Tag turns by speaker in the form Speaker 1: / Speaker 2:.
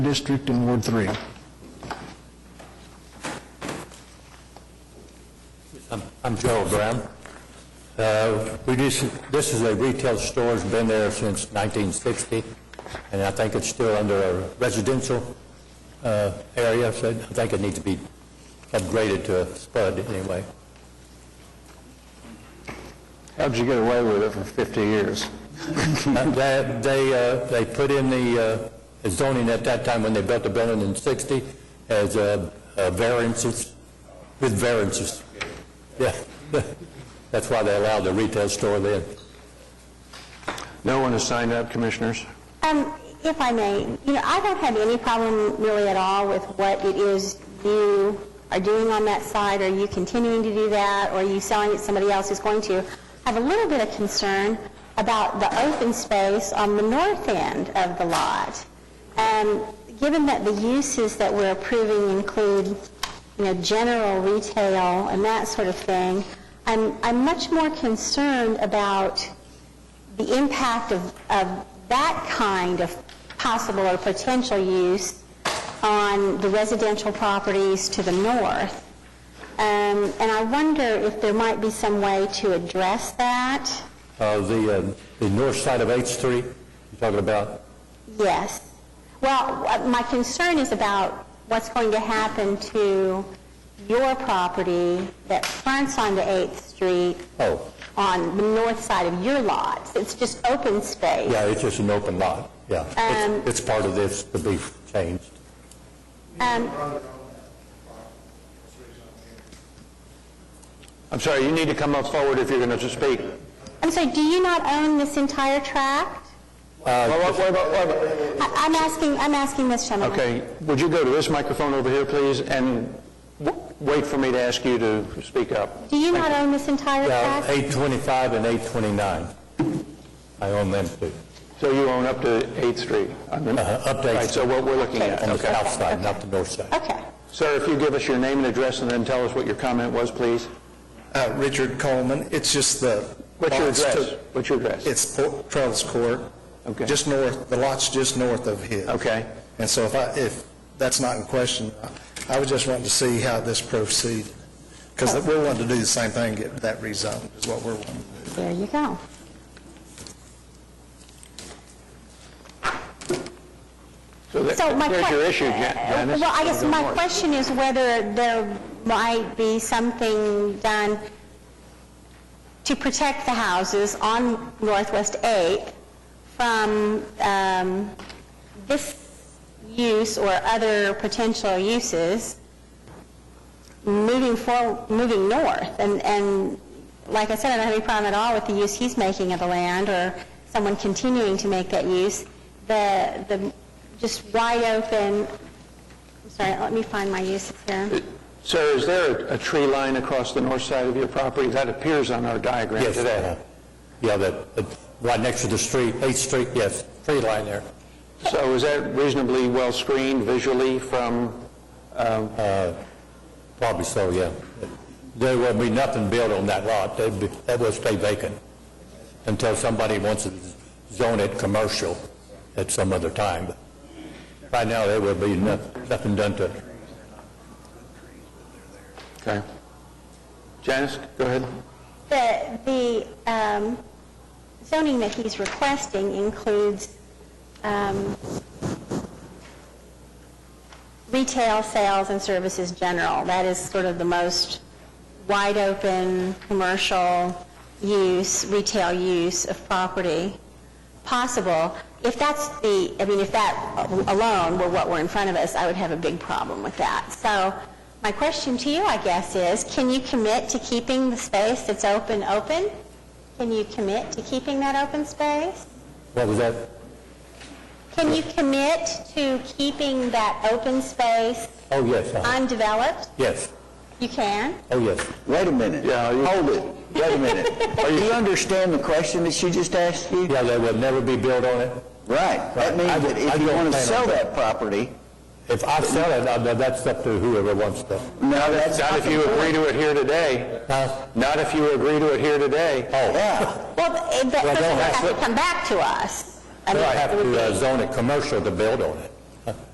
Speaker 1: District in Ward 3.
Speaker 2: I'm- I'm Gerald Brown. Uh, We just, this is a retail store, it's been there since 1960, and I think it's still under a residential uh, area, so I think it needs to be upgraded to a spud anyway.
Speaker 1: How'd you get away with it for 50 years?
Speaker 2: Uh, They, they, uh, they put in the uh, zoning at that time when they built the building in 60 as uh, uh, variances, with variances. Yeah, that's why they allowed the retail store then.
Speaker 1: No one has signed up, Commissioners?
Speaker 3: Um, if I may, you know, I don't have any problem really at all with what it is you are doing on that site. Are you continuing to do that, or are you selling it to somebody else who's going to? I have a little bit of concern about the open space on the north end of the lot. Um, given that the uses that we're approving include, you know, general retail and that sort of thing, I'm, I'm much more concerned about the impact of, of that kind of possible or potential use on the residential properties to the north. Um, and I wonder if there might be some way to address that.
Speaker 2: Uh, The um, the north side of H Street, you're talking about,
Speaker 3: Yes. Well, uh, my concern is about what's going to happen to your property that fronts onto 8th Street
Speaker 2: oh,
Speaker 3: on the north side of your lots. It's just open space.
Speaker 2: yeah, it's just an open lot, yeah. It's-
Speaker 3: Um,
Speaker 2: It's part of this to be changed.
Speaker 3: Um,
Speaker 1: I'm sorry, you need to come up forward if you're going to speak.
Speaker 3: I'm sorry, do you not own this entire tract?
Speaker 1: Well, what- what about- what about-
Speaker 3: I- I'm asking, I'm asking this gentleman.
Speaker 1: Okay, would you go to this microphone over here, please, and w- wait for me to ask you to speak up?
Speaker 3: Do you not own this entire
Speaker 2: Yeah,
Speaker 3: tract?
Speaker 2: 825 and 829, I own them too.
Speaker 1: So you own up to 8th Street?
Speaker 2: Uh, Up to
Speaker 1: Right,
Speaker 2: 8th
Speaker 1: so
Speaker 2: Street,
Speaker 1: what we're looking at,
Speaker 2: on the
Speaker 1: okay.
Speaker 2: south side, not the north side.
Speaker 3: Okay.
Speaker 1: Sir, if you give us your name and address and then tell us what your comment was, please.
Speaker 4: Uh, Richard Coleman, it's just the...
Speaker 1: What's your
Speaker 4: lots
Speaker 1: address?
Speaker 4: to-
Speaker 1: What's your address?
Speaker 4: It's Po- Trellis Court.
Speaker 1: Okay.
Speaker 4: Just north, the lot's just north of his.
Speaker 1: Okay.
Speaker 4: And so if I, if that's not in question, I- I was just wanting to see how this proceeded, because we're wanting to do the same thing, get that rezoned, is what we're wanting.
Speaker 3: There you go.
Speaker 1: So that-
Speaker 3: So my
Speaker 1: There's your
Speaker 3: que- uh,
Speaker 1: issue, Jan- Janice.
Speaker 3: Well, I guess
Speaker 1: Don't
Speaker 3: my
Speaker 1: worry.
Speaker 3: question is whether there might be something done to protect the houses on Northwest 8th from um, this use or other potential uses moving for, moving north. And, and like I said, I don't have any problem at all with the use he's making of the land or someone continuing to make that use. The, the just wide open, I'm sorry, let me find my uses here.
Speaker 1: Sir, is there a a tree line across the north side of your property? That appears on our diagram
Speaker 2: Yes,
Speaker 1: today.
Speaker 2: uh, yeah, that, uh, right next to the street, 8th Street, yes, tree line there.
Speaker 1: So is that reasonably well screened visually from, uh,
Speaker 2: Probably so, yeah. There will be nothing built on that lot. They'd be- That will stay vacant until somebody wants to zone it commercial at some other time. Right now, there will be no- nothing done to it.
Speaker 1: okay. Janice, go ahead.
Speaker 3: The, the um, zoning that he's requesting includes um, retail sales and services general. That is sort of the most wide-open commercial use, retail use of property possible. If that's the, I mean, if that alone were what were in front of us, I would have a big problem with that. So my question to you, I guess, is can you commit to keeping the space that's open, open? Can you commit to keeping that open space?
Speaker 2: What was that?
Speaker 3: Can you commit to keeping that open space
Speaker 2: Oh, yes, uh-huh.
Speaker 3: undeveloped?
Speaker 2: yes,
Speaker 3: You can?
Speaker 2: oh, yes.
Speaker 5: Wait a minute.
Speaker 1: Yeah, you-
Speaker 5: Hold it. Wait a minute. Do you understand the question that she just asked you?
Speaker 2: Yeah, there will never be built on it.
Speaker 5: Right. That means
Speaker 2: I-
Speaker 5: that
Speaker 2: I
Speaker 5: if you
Speaker 2: don't
Speaker 5: want to
Speaker 2: plan on
Speaker 5: sell that
Speaker 2: that.
Speaker 5: property,
Speaker 2: If I sell it, uh, that's up to whoever wants to.
Speaker 5: no, that's
Speaker 1: Not
Speaker 5: not
Speaker 1: if you
Speaker 5: the
Speaker 1: agree
Speaker 5: point.
Speaker 1: to it here today.
Speaker 2: Huh?
Speaker 1: Not if you agree to it here today.
Speaker 2: Oh,
Speaker 5: Yeah.
Speaker 3: Well,
Speaker 2: Well, I don't
Speaker 3: th- that person
Speaker 2: have
Speaker 3: has to
Speaker 2: to-
Speaker 3: come back to us. I
Speaker 2: I
Speaker 3: mean,
Speaker 2: have
Speaker 3: it would
Speaker 2: to uh,
Speaker 3: be-
Speaker 2: zone it commercial to build on it.